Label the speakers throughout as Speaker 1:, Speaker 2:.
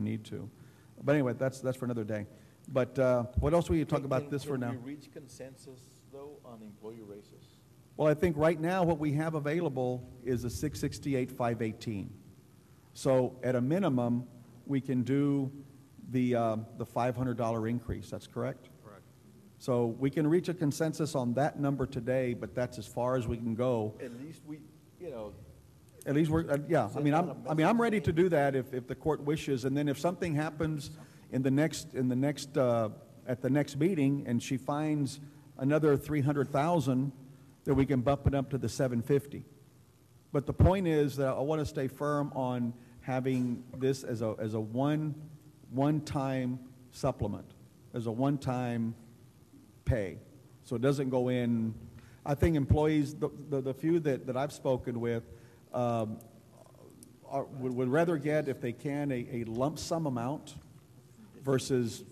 Speaker 1: need to. But anyway, that's, that's for another day. But uh, what else will you talk
Speaker 2: Can-
Speaker 1: about
Speaker 2: can-
Speaker 1: this for now?
Speaker 2: Can we reach consensus, though, on employee raises?
Speaker 1: Well, I think right now, what we have available is a six sixty-eight, five eighteen. So at a minimum, we can do the, uh, the five hundred dollar increase, that's correct? Correct. So we can reach a consensus on that number today, but that's as far as we can go.
Speaker 2: At least we, you know,
Speaker 1: At least we're, uh, yeah, I mean, I'm, I mean, I'm ready to do that if, if the court wishes, and then if something happens in the next, in the next, uh, at the next meeting, and she finds another three hundred thousand, then we can bump it up to the seven fifty. But the point is that I want to stay firm on having this as a, as a one, one-time supplement, as a one-time pay. So it doesn't go in, I think employees, the, the, the few that, that I've spoken with, um, are, would, would rather get, if they can, a, a lump sum amount versus,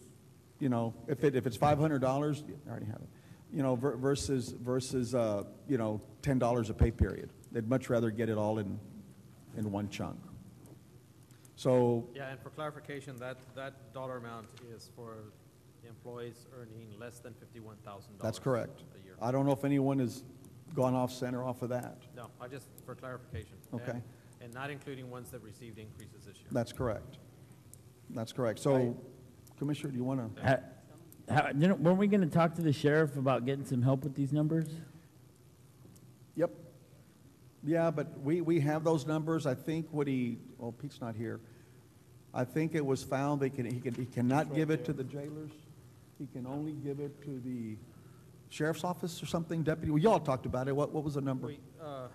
Speaker 1: you know, if it, if it's five hundred dollars, I already have it, you know, ver- versus, versus, uh, you know, ten dollars a pay period. They'd much rather get it all in, in one chunk. So,
Speaker 3: Yeah, and for clarification, that, that dollar amount is for employees earning less than fifty-one thousand dollars.
Speaker 1: that's correct.
Speaker 3: A year.
Speaker 1: I don't know if anyone has gone off center off of that.
Speaker 3: No, I just, for clarification.
Speaker 1: Okay.
Speaker 3: And- And not including ones that received increases this year.
Speaker 1: That's correct. That's correct. So, Commissioner, do you want to?
Speaker 4: Ha- ha- you know, weren't we going to talk to the sheriff about getting some help with these numbers?
Speaker 1: Yep. Yeah, but we, we have those numbers. I think what he, well, Pete's not here. I think it was found they can, he can, he cannot give it to the jailers. He can only give it to the sheriff's office or something, deputy. Well, y'all talked about it. What, what was the number?
Speaker 3: We, uh,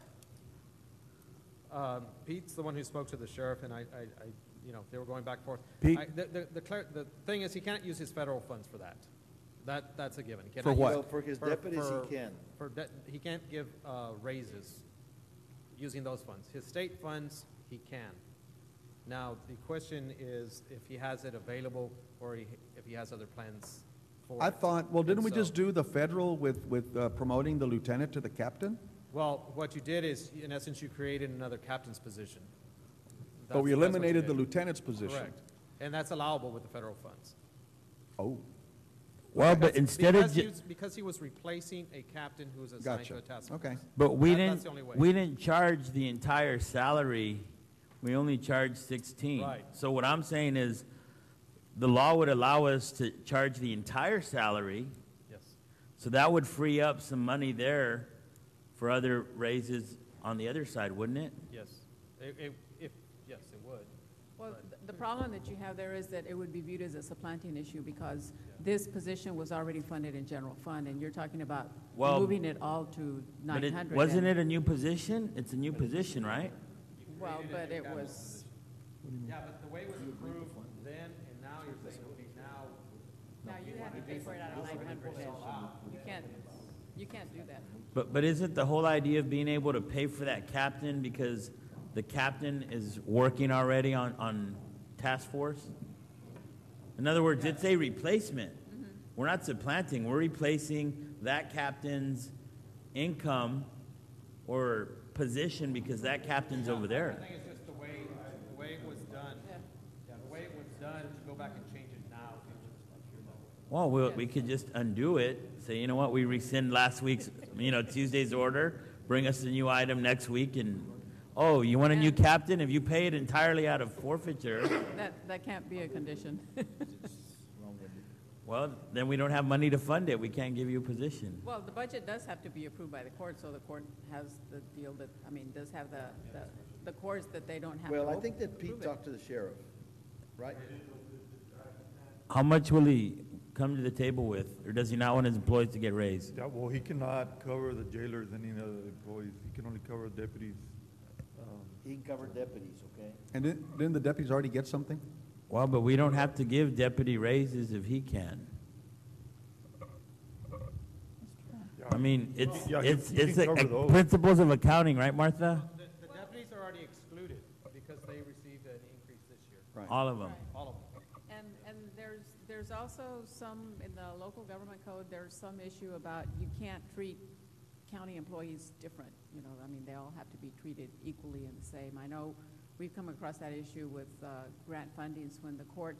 Speaker 3: um, Pete's the one who spoke to the sheriff, and I, I, I, you know, they were going back and forth.
Speaker 1: Pete?
Speaker 3: I- The, the, the clar- the thing is, he can't use his federal funds for that. That, that's a given. He
Speaker 1: For
Speaker 3: cannot
Speaker 1: what?
Speaker 3: use-
Speaker 1: Well,
Speaker 2: for his deputies, he
Speaker 3: for-
Speaker 2: can.
Speaker 3: For, de- he can't give, uh, raises using those funds. His state funds, he can. Now, the question is if he has it available or he- if he has other plans for
Speaker 1: I
Speaker 3: it.
Speaker 1: thought, well, didn't
Speaker 3: And
Speaker 1: we
Speaker 3: so-
Speaker 1: just do the federal with, with uh, promoting the lieutenant to the captain?
Speaker 3: well, what you did is, in essence, you created another captain's position.
Speaker 1: But we
Speaker 3: That's- that's what you
Speaker 1: eliminated the
Speaker 3: did.
Speaker 1: lieutenant's position.
Speaker 3: Correct. And that's allowable with the federal funds.
Speaker 1: Oh,
Speaker 4: Well, but
Speaker 3: Because-
Speaker 4: instead of,
Speaker 3: because he
Speaker 4: ju-
Speaker 3: was- Because he was replacing a captain who was assigned to
Speaker 1: gotcha.
Speaker 3: a task force.
Speaker 1: Okay.
Speaker 4: but we
Speaker 3: that- that's the only
Speaker 4: didn't,
Speaker 3: way.
Speaker 4: we didn't charge the entire salary. We only charged 16.
Speaker 3: Right.
Speaker 4: So what I'm saying is, the law would allow us to charge the entire salary,
Speaker 3: Yes.
Speaker 4: so that would free up some money there for other raises on the other side, wouldn't it?
Speaker 3: Yes. It- it- if, yes, it would.
Speaker 5: Well,
Speaker 3: Right.
Speaker 5: th- the problem that you have there is that it would be viewed as a supplanting issue because this position was already funded in general fund, and you're talking about
Speaker 4: Well,
Speaker 5: moving it all to
Speaker 4: But
Speaker 5: nine
Speaker 4: it,
Speaker 5: hundred.
Speaker 4: wasn't it a new position? It's a new position, right?
Speaker 5: Well, but it was,
Speaker 3: Yeah, but the way it was approved then and now, you're saying, okay, now.
Speaker 5: now you have to pay for it out of nine hundred. You can't, you can't do that.
Speaker 4: But, but isn't the whole idea of being able to pay for that captain because the captain is working already on, on task force? In other words, it's a replacement. We're not supplanting, we're replacing that captain's income or position because that captain's over
Speaker 3: I
Speaker 4: there.
Speaker 3: think it's just the way, the way it was done.
Speaker 5: Yeah.
Speaker 3: Yeah, the way it was done, to go back and change it now.
Speaker 4: Well, we, we could just undo it, say, you know what, we rescind last week's, you know, Tuesday's order, bring us a new item next week and, oh, you want a new captain? If you pay it entirely out of forfeiture,
Speaker 5: That, that can't be a condition.
Speaker 4: Well, then we don't have money to fund it. We can't give you a position.
Speaker 5: Well, the budget does have to be approved by the court, so the court has the deal that, I mean, does have the, the- the courts that they don't have to
Speaker 2: well, I
Speaker 5: op-
Speaker 2: think that Pete
Speaker 5: approve it.
Speaker 2: talked to the sheriff, right?
Speaker 4: How much will he come to the table with, or does he not want his employees to get raised?
Speaker 6: Yeah, well, he cannot cover the jailers and any other employees. He can only cover deputies. Um,
Speaker 2: He can cover deputies, okay?
Speaker 1: and didn't didn't the deputies already get something?
Speaker 4: Well, but we don't have to give deputy raises if he can. I mean, it's
Speaker 6: Yeah, he-
Speaker 4: it's
Speaker 6: he can
Speaker 4: it's a,
Speaker 6: cover those.
Speaker 4: principles of accounting, right, Martha?
Speaker 3: The, the deputies are already excluded because they received an increase this year,
Speaker 1: Right.
Speaker 4: All of them.
Speaker 3: all of them.
Speaker 5: And, and there's, there's also some, in the local government code, there's some issue about you can't treat county employees different, you know, I mean, they all have to be treated equally and the same. I know We've come across that issue with uh, grant fundings when the court